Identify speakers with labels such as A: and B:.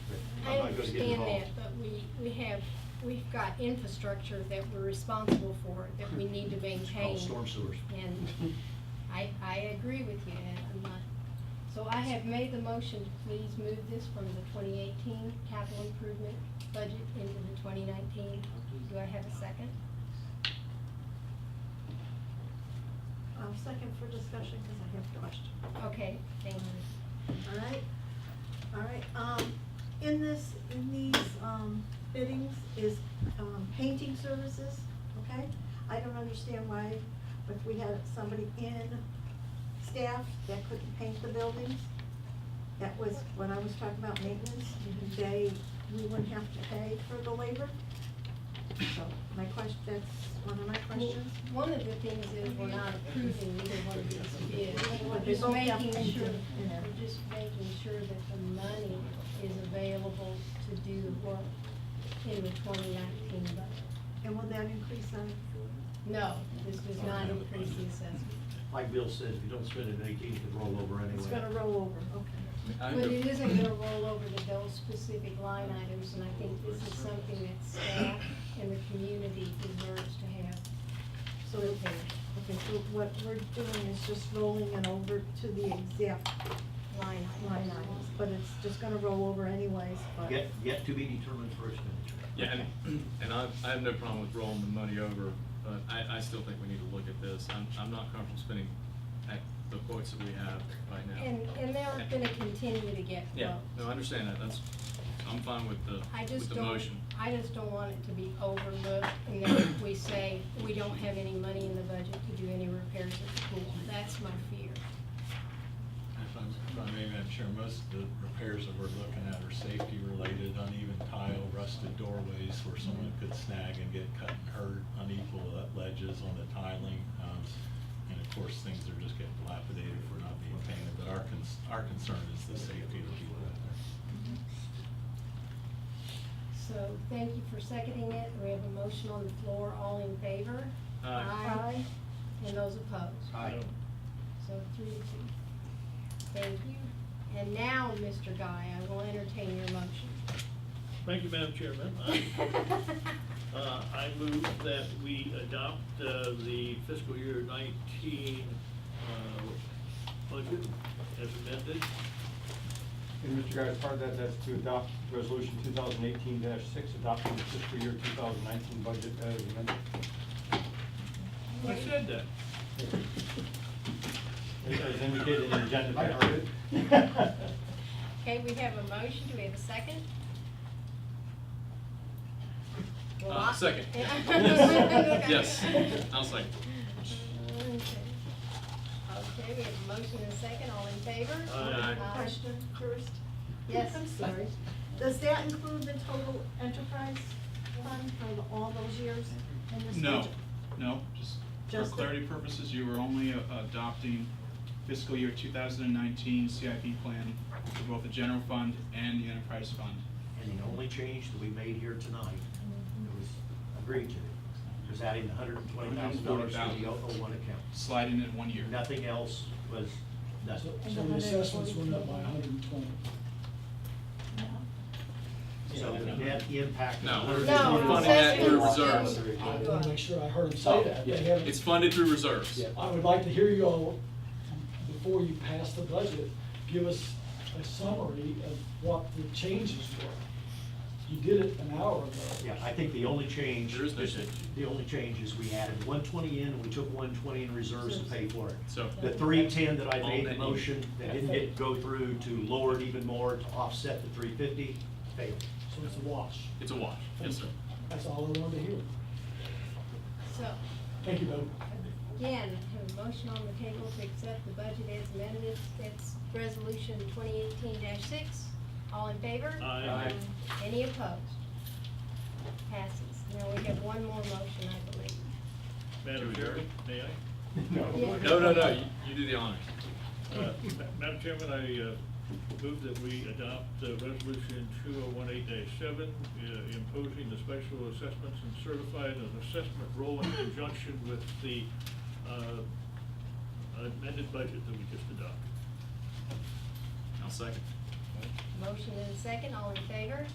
A: I
B: I'm not gonna get
A: understand that,
B: involved.
A: but we, we have, we've got infrastructure that we're responsible for, that we need to
B: It's
A: maintain.
B: called storm sewers.
A: And I, I agree with you, and I'm not, so I have made the motion to please move this from the twenty eighteen capital improvement budget into the twenty nineteen. Do I have a second?
C: Um, second for discussion, because I have a question.
A: Okay, thank you.
C: All right, all right, um, in this, in these, um, biddings is, um, painting services, okay? I don't understand why, if we had somebody in staff that couldn't paint the buildings, that was when I was talking about maintenance, they, we wouldn't have to pay for the labor. So my question, that's one of my questions.
A: One of the things is we're not approving either one of these bids. We're
C: They
A: just
C: both have
A: making
C: painting
A: sure,
C: in there.
A: we're just making sure that the money is available to do the work in the twenty nineteen budget.
C: And will that increase on
A: No, this does not increase the assessment.
B: Like Bill said, if you don't spend it in eighteen, it can roll over anyway.
C: It's gonna roll over, okay.
D: I
A: But
D: under-
A: it isn't gonna roll over to those specific line items, and I think this is something that staff and the community deserves to have.
C: So, okay, okay, so what we're doing is just rolling it over to the exact
A: Line
C: line items, but it's just gonna roll over anyways, but.
B: Yet, yet to be determined for expenditure.
D: Yeah, and, and I, I have no problem with rolling the money over, but I, I still think we need to look at this. I'm, I'm not comfortable spending at the quotes that we have right now.
A: And, and they're gonna continue to get
D: Yeah,
A: votes.
D: no, I understand that, that's, I'm fine with the,
A: I
D: with
A: just
D: the
A: don't,
D: motion.
A: I just don't want it to be overlooked, and then if we say, we don't have any money in the budget to do any repairs at the pool. That's my fear.
E: If I'm, if I may, Madam Chair, most of the repairs that we're looking at are safety related, uneven tile, rusted doorways where someone could snag and get cut and hurt, unequal ledges on the tiling. um, And of course, things are just getting dilapidated if we're not being painted, but our, cons- our concern is the safety of the people out there.
A: So, thank you for seconding it, we have a motion on the floor, all in favor?
D: Aye.
A: Aye. And those opposed?
B: Aye.
A: So three to two. Thank you. And now, Mr. Guy, I will entertain your
F: Thank you, Madam Chairman. I-
A: motion.
F: uh, I move that we adopt uh, the fiscal year 19 uh, budget as amended.
G: And Mr. Guy, as part of that, that's to adopt resolution two thousand eighteen six, adopting the fiscal year two thousand nineteen budget as amended.
F: I said that.
G: As indicated in the agenda. I heard it.
A: Okay, we have a motion, do we have a second? Well,
D: Uh,
A: I-
D: second.
A: Yes.
D: Yes, I'll second.
A: Okay, Okay, we have a motion and a second, all in favor?
F: Aye.
C: Question first?
A: Uh, Yes.
C: I'm sorry. Does that include the total enterprise fund for the- all those years in this budget?
H: No, no, just for
C: Just the-
H: clarity purposes, you were only a- adopting fiscal year two thousand and nineteen CIP plan for both the general fund and the enterprise fund.
B: And the only change that we made here tonight,
A: Mm-hmm.
B: that was agreed to, was adding the hundred and twenty thousand dollars to the
H: 140,000.
B: O one account.
H: Slide in at one year.
B: Nothing else was, that's,
I: So so the assessments went up by hundred and twenty.
B: so the net impact.
D: No,
B: of
D: we're
A: No,
D: we're funding that through
A: assessments.
D: reserves.
I: I want to make sure I
B: Oh,
I: heard him say that. They haven't-
D: It's funded through reserves.
I: I would like to hear you all, before you pass the budget, give us a summary of what the changes were. You did it an hour ago.
B: Yeah, I think the only change.
D: There is no change.
B: The only change is we added one twenty in, and we took one twenty in reserves to pay for it.
D: So-
B: The three ten that I
D: All
B: made
D: that
B: the
D: you-
B: motion, that didn't get, go through to lower it even more to offset the three fifty, failed.
I: So it's a wash.
D: It's a wash, yes, sir.
I: That's all I wanted to hear.
A: So,
I: Thank you, Bo.
A: again, I have a motion on the table to accept the budget as amended, that's resolution twenty eighteen six. All in favor?
F: Aye.
A: Any opposed? Passes. Now, we have one more motion, I believe.
F: Madam
D: Can we do it?
F: Chairman, may I? Oh,
A: Yeah.
D: No, no, no, you, you do the honors.
F: Uh, Ma- Madam Chairman, I uh, move that we adopt uh, Resolution 2018-7, uh, imposing the special assessments and certified an assessment role in conjunction with the uh, amended budget that we just adopted.
D: I'll second.
A: Motion and a second, all in favor?